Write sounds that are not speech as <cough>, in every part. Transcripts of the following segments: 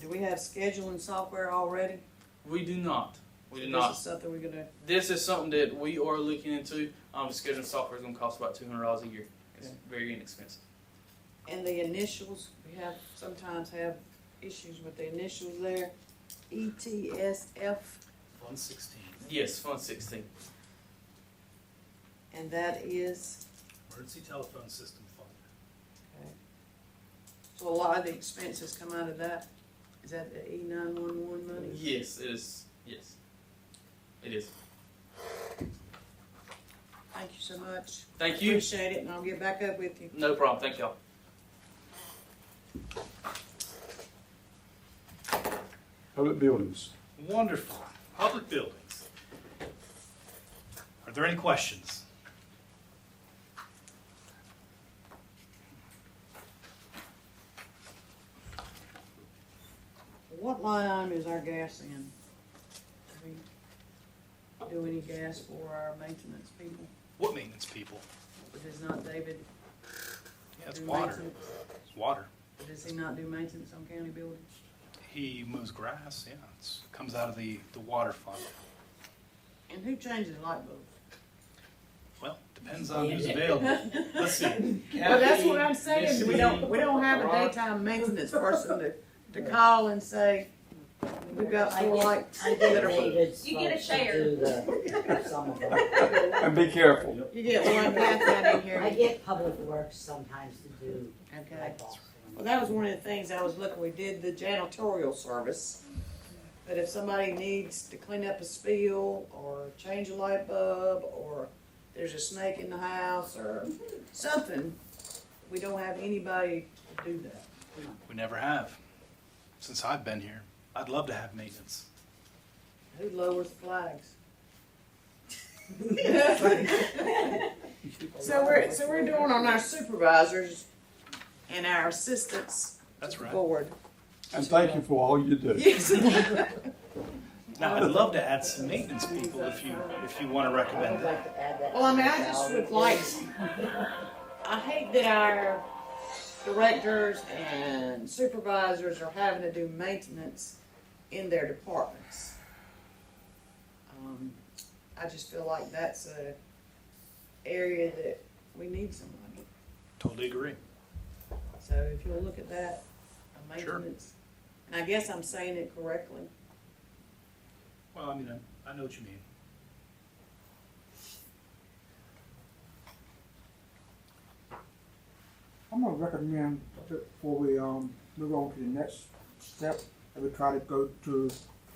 Do we have scheduling software already? We do not. We do This not. is something we're gonna, This is something that we are looking into. Um, scheduling software is going to cost about two hundred dollars a year. It's Okay. very inexpensive. and the initials, we have, sometimes have issues with the initials there. E ETSF, One sixteen, Yes, Fund Sixteen. and that is, emergency telephone system fund. so a lot of the expenses come out of that. Is that the E nine one one money? Yes, it is. Yes, it is. Thank you so much. Thank you. Appreciate it, and I'll get back up with you. No problem. Thank y'all. Public buildings. Wonderful. Public buildings. Are there any questions? What line item is our gas in? Do we do any gas for our maintenance people? What maintenance people? But Does not David Yeah, it's do water. maintenance? It's water. Does he not do maintenance on county buildings? He mows grass, yeah, it's, comes out of the, the water fund. And who changes the light bulbs? Well, depends on who's available. Let's see. <laughs> Well, that's what I'm saying, we don't, we don't have a Ron. daytime maintenance person to, to call and say, we've got I four get- lights I that get are. David's. You get a folks to share. do <laughs> the- some of them. And be careful. <laughs> You get one half out of I here. get public works sometimes to do Okay. eyeballs. Well, that was one of the things I was looking, we did the janitorial service. But if somebody needs to clean up a spill or change a light bulb or there's a snake in the house or something, we don't have anybody to do that. We never have, since I've been here. I'd love to have maintenance. Who lowers <laughs> flags? So we're, so we're doing on our supervisors and our assistants That's right. board. And thank you for all you do. <laughs> Yes. Now, I'd love to add some maintenance people if you, if you wanna I recommend would that. like to add that. Well, I mean, I to just salary. would like, I hate that our directors and supervisors are having to do maintenance in their departments. Um, I just feel like that's a area that we need somebody. Totally agree. So if you'll look at that, a Sure. maintenance, and I guess I'm saying it correctly. Well, I mean, I, I know what you mean. I'm gonna recommend that before we um move on to the next step, that we try to go through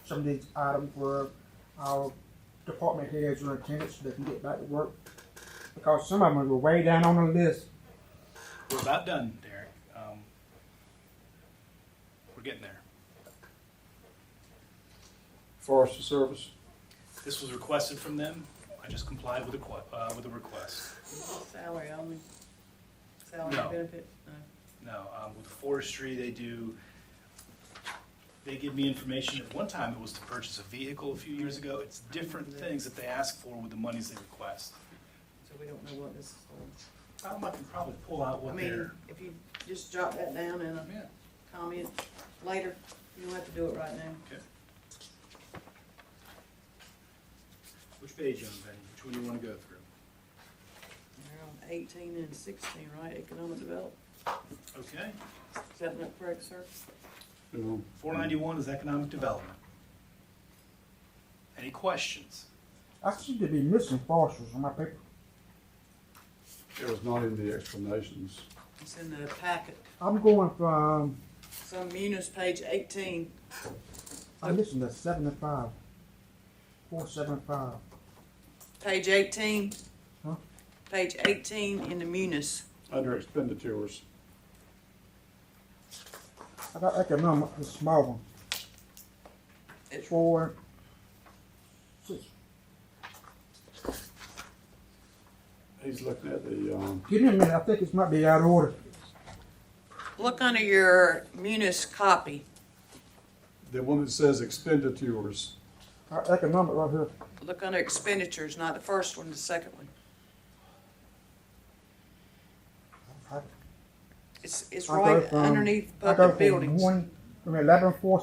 some of these items where our department heads are in attendance so they can get back to work. Because some of them were way down on the list. We're about done, Derek. Um, we're getting there. Forestry Service. This was requested from them. I just complied with the, que- uh, with the request. Salary only, salary No. benefit, uh, no. No, um, with forestry, they do, they give me information. At one time, it was to purchase a vehicle a few years ago. It's different things that they ask for with the monies they request. so we don't know what this is for. Um, I can probably pull out I what mean, they're, if you just jot that down in a yeah. comment later, you don't have to do it right now. Which page, young man? Which one do you want to go through? They're on eighteen and sixteen, right, economic development, Okay. is that not correct, sir? No. Four ninety-one is economic development. Any questions? I seem to be missing foresters on my paper. It was not in the explanations. It's in the packet, I'm going from, so munis page eighteen, I'm missing the seven and five. Four, seven, and five. page eighteen. Huh? Page eighteen in the munis. Under expenditures. I got economic, the small one. It's- Four, six, He's looking at the, um, Give me a minute, I think this might be out of order. Look under your munis copy, the one that says expenditures. Our economic right here. look under expenditures, not the first one, the second one. It's, it's I right go from- underneath I public go from buildings. one, from eleven four